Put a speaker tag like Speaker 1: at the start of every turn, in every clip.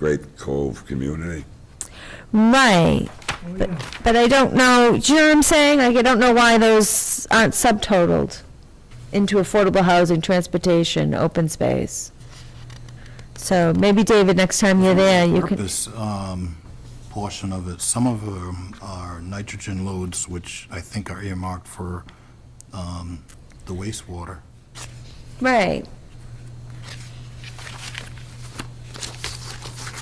Speaker 1: Great Cove community.
Speaker 2: Right, but, but I don't know, do you know what I'm saying? Like, I don't know why those aren't subtotaled into affordable housing, transportation, open space. So maybe, David, next time you're there, you could,
Speaker 3: This um, portion of it, some of them are nitrogen loads, which I think are earmarked for um, the wastewater.
Speaker 2: right,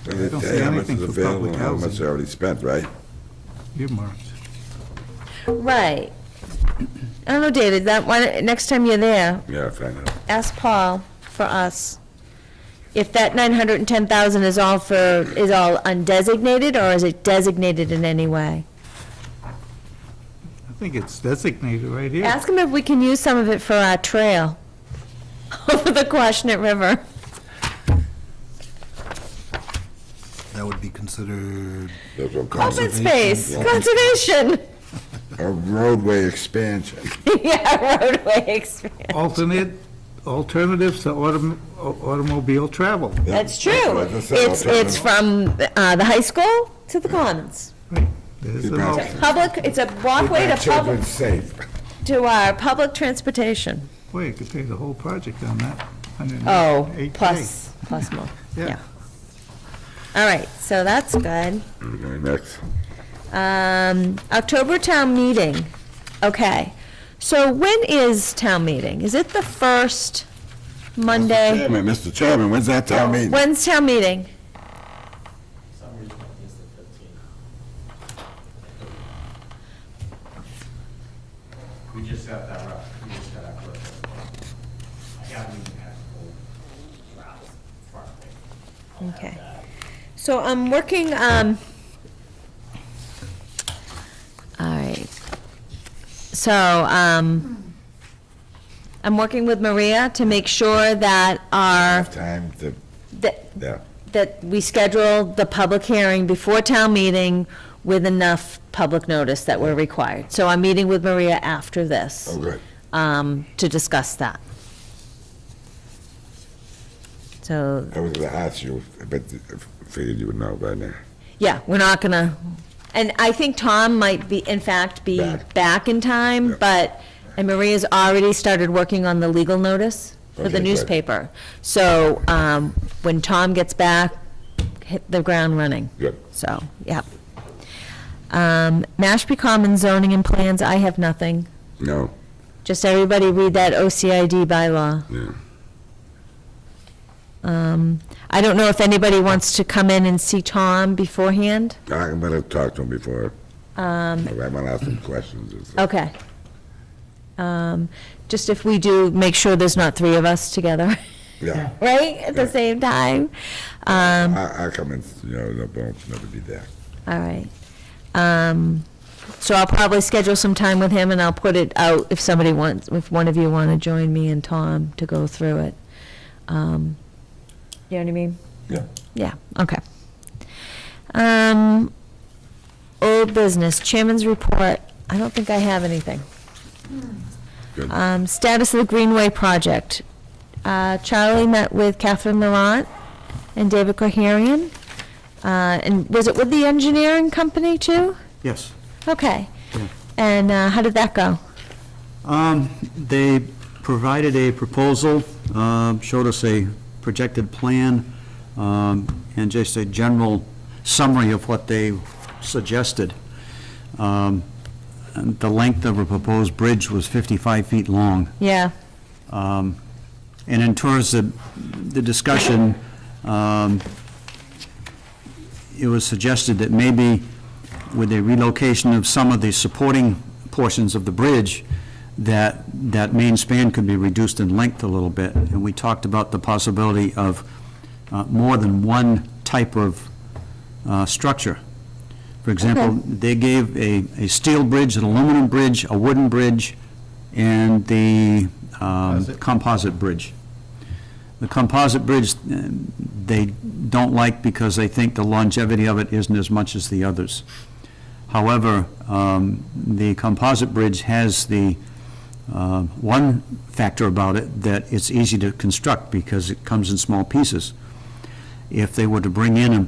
Speaker 1: I
Speaker 4: don't see anything for public
Speaker 1: How much
Speaker 4: housing.
Speaker 1: they already spent, right?
Speaker 4: earmarked.
Speaker 2: right. I don't know, David, that, why, don't- next time you're there,
Speaker 1: Yeah, find out.
Speaker 2: ask Paul for us, if that nine hundred and ten thousand is all for, is all undesignated, or is it designated in any way?
Speaker 4: I think it's designated right here.
Speaker 2: Ask him if we can use some of it for our trail over the Quashnet River.
Speaker 3: That would be considered,
Speaker 1: That's what comes-
Speaker 2: Open space, conservation,
Speaker 1: A roadway expansion.
Speaker 2: yeah, roadway expansion.
Speaker 4: Alternate, alternatives to autom- au- automobile travel.
Speaker 1: That's
Speaker 2: That's true.
Speaker 1: what I just said,
Speaker 2: It's, it's
Speaker 1: alternative.
Speaker 2: from uh, the high school to the commons.
Speaker 4: There's
Speaker 1: Keep
Speaker 4: an
Speaker 1: out.
Speaker 4: al-
Speaker 2: It's a Public, it's a walkway to
Speaker 1: Children
Speaker 2: public,
Speaker 1: safe.
Speaker 2: to our public transportation.
Speaker 4: Boy, you could take the whole project on that.
Speaker 2: Oh,
Speaker 4: 108K.
Speaker 2: plus, plus more,
Speaker 4: Yeah.
Speaker 2: yeah. All right, so that's good.
Speaker 1: Okay, next.
Speaker 2: Um, October town meeting, okay. So when is town meeting? Is it the first Monday?
Speaker 1: Chairman, Mr. Chairman, when's that town meeting?
Speaker 2: When's town meeting?
Speaker 5: some reason I think it's the thirteenth. We just got that rough, we just got that rough. I haven't even had the whole route far away.
Speaker 2: Okay. So I'm working, um, all right. So, um, I'm working with Maria to make sure that our,
Speaker 1: Time to,
Speaker 2: that,
Speaker 1: yeah.
Speaker 2: that we schedule the public hearing before town meeting with enough public notice that we're required. So I'm meeting with Maria after this,
Speaker 1: Oh, good.
Speaker 2: um, to discuss that. So,
Speaker 1: I was gonna ask you, but I figured you would know by now.
Speaker 2: yeah, we're not gonna, and I think Tom might be, in fact, be
Speaker 1: Back.
Speaker 2: back in time,
Speaker 1: Yeah.
Speaker 2: but, and Maria's already started working on the legal notice for
Speaker 1: Okay,
Speaker 2: the
Speaker 1: good.
Speaker 2: newspaper. So, um, when Tom gets back, hit the ground running.
Speaker 1: Good.
Speaker 2: So, yep. Um, Mashpee Commons zoning and plans, I have nothing.
Speaker 1: No,
Speaker 2: Just everybody read that OCID bylaw.
Speaker 1: yeah.
Speaker 2: Um, I don't know if anybody wants to come in and see Tom beforehand.
Speaker 1: I'm gonna talk to him before,
Speaker 2: Um,
Speaker 1: I might ask him questions. and stuff.
Speaker 2: okay. Um, just if we do, make sure there's not three of us together,
Speaker 1: Yeah,
Speaker 2: right, at the
Speaker 1: Yeah.
Speaker 2: same time. Um,
Speaker 1: I, I come in, you know, they'll both never be there.
Speaker 2: all right. Um, so I'll probably schedule some time with him and I'll put it out if somebody wants, if one of you want to join me and Tom to go through it. Um, you know what I mean?
Speaker 1: Yeah.
Speaker 2: Yeah, okay. Um, old business, chairman's report, I don't think I have anything.
Speaker 1: Good.
Speaker 2: Um, status of the Greenway project. Uh, Charlie met with Catherine Laurent and David Koharian. Uh, and was it with the engineering company too?
Speaker 6: Yes.
Speaker 2: Okay. And, uh, how did that go?
Speaker 6: Um, They provided a proposal, um, showed us a projected plan, um, and just a general summary of what they suggested. Um, and The length of a proposed bridge was 55 feet long.
Speaker 2: Yeah,
Speaker 6: Um, And in terms of the discussion, um, it was suggested that maybe with the relocation of some of the supporting portions of the bridge, that, that main span could be reduced in length a little bit. And we talked about the possibility of uh, more than one type of uh, structure. For example,
Speaker 2: Okay.
Speaker 6: they gave a, a steel bridge, an aluminum bridge, a wooden bridge, and the um,
Speaker 4: Composite.
Speaker 6: composite bridge. The composite bridge, uh, they don't like because they think the longevity of it isn't as much as the others. However, um, the composite bridge has the, uh, one factor about it, that it's easy to construct because it comes in small pieces. If they were to bring in a